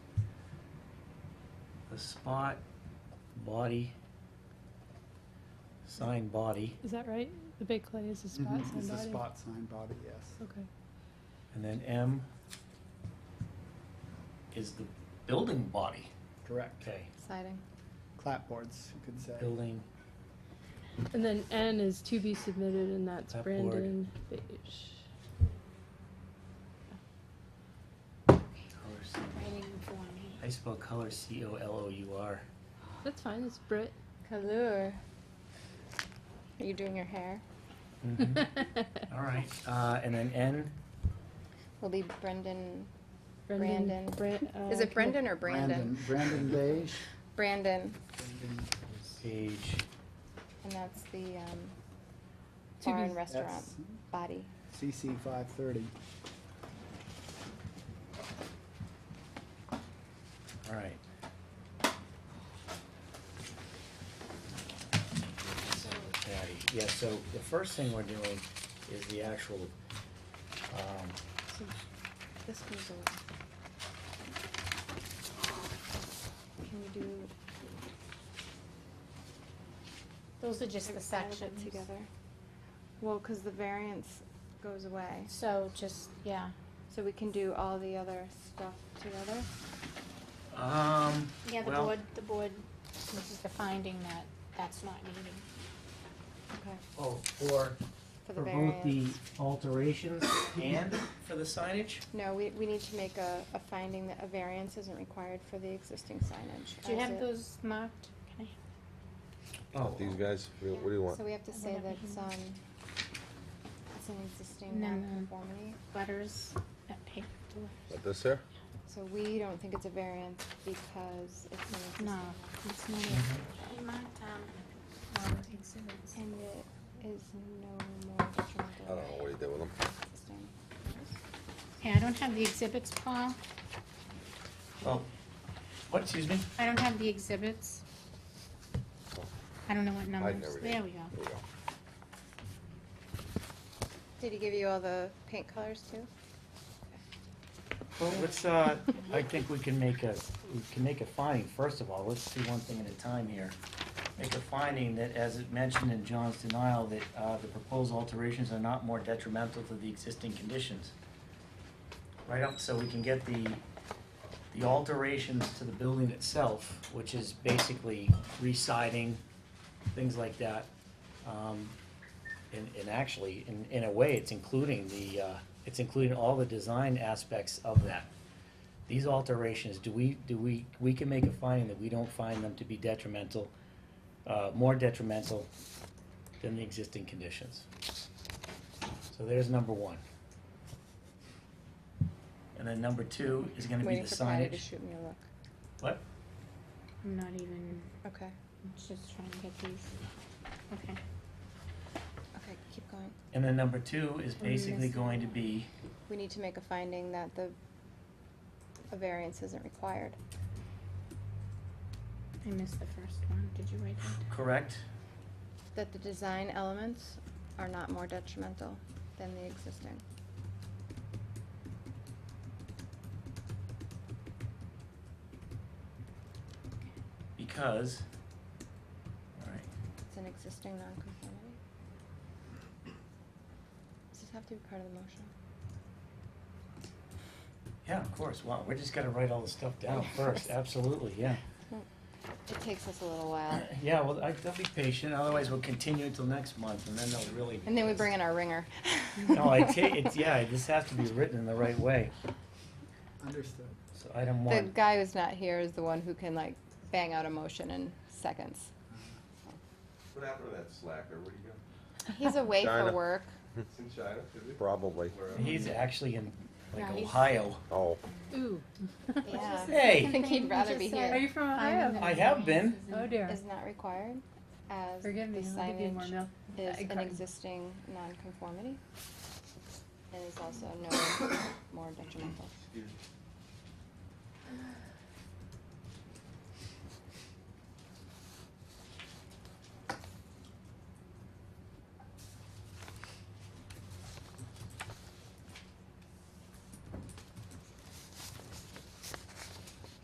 spot, body, sign body, Is that right? The big clay is the spot Mm-hmm. Mhm, sign It's a body? spot sign body, yes. Okay. and then M is the building body. Correct. Okay. Exciting. Clapboards, you could say. Building, And then N is to be submitted, and that's That board. Brandon Beige. color, C- I spell color C O L O U R. That's fine. It's Brit. Color. Are you doing your hair? Mm-hmm. Mhm. All right, uh, and then N, Will be Brendan. Brendan. Bran- uh, Is it Brendan or Brandon? Brandon Beige. Brandon. Brandon- page, And that's the um, To bar be- and restaurant that's body. CC five thirty. all right. Patty. Yeah, so the first thing we're doing is the actual, um, So this goes over. Can you do? Those are just the everything all of it sections. Together. Well, because the variance goes away, So just, yeah, so we can do all the other stuff together. um, yeah, the well- board, the board, this is the finding that that's not needed. Okay. Oh, for, For the for both the variance. alterations and for the signage? No, we, we need to make a, a finding that a variance isn't required for the existing signage. Do you as have it- those marked? Can I? Oh, These guys, Real- what do you want? So we have to I say wonder that if we it's, can- um, it's an existing No, no. nonconformity. Butters, that paper, Like this here? So we don't think it's a variance because it's an existing. no, it's not. Mm-hmm. it. um, And it is no more detrimental. I don't know what he did with them. than existing. Hey, I don't have the exhibits, Paul, oh, what, excuse me? I don't have the exhibits. I don't know what numbers, never did. there we go. Here we go. Did he give you all the paint colors too? Well, let's, uh, I think we can make a, we can make a finding, first of all, let's do one thing at a time here. Make a finding that, as it mentioned in John's denial, that, uh, the proposed alterations are not more detrimental to the existing conditions. Right up, so we can get the, the alterations to the building itself, which is basically re-siding, things like that. Um, and, and actually, in, in a way, it's including the, uh, it's including all the design aspects of that. These alterations, do we, do we, we can make a finding that we don't find them to be detrimental, uh, more detrimental than the existing conditions. So there's number one. And then number two is gonna be the Waiting for Patty to signage. shoot me a look. What? I'm not even, Okay, I'm just trying to get these, okay. okay, keep going. And then number two is We're basically missing going to one. be, We need to make a finding that the, a variance isn't required. I missed the first one, did you write that? down? correct? That the design elements are not more detrimental than the existing. Because, all right, It's an existing nonconformity. Does this have to be part of the motion? Yeah, of course. Wow, we're just gonna write all the stuff down first. Absolutely, yeah. It takes us a little while. Yeah, well, I, they'll be patient. Otherwise, we'll continue until next month, and then they'll really. be And then we pissed. bring in our ringer. No, I ta- it's yeah. This has to be written in the right way. Understood. So item The one. guy who's not here is the one who can like bang out a motion in seconds. What happened to that slacker? Where'd he go? He's away for China. work. It's in China, is it? Hmm. Probably. Wherever. He's actually in like No, he's- Ohio. Oh, Ooh. Yeah. I Hey, think he'd rather be Are here. you from Finding Ohio? that Uh, I have been. variance is Oh in- dear. Is not required as the Forgive me. I'll give you more signage milk. is Egg an carton. existing nonconformity. And is also no more detrimental. Excuse me.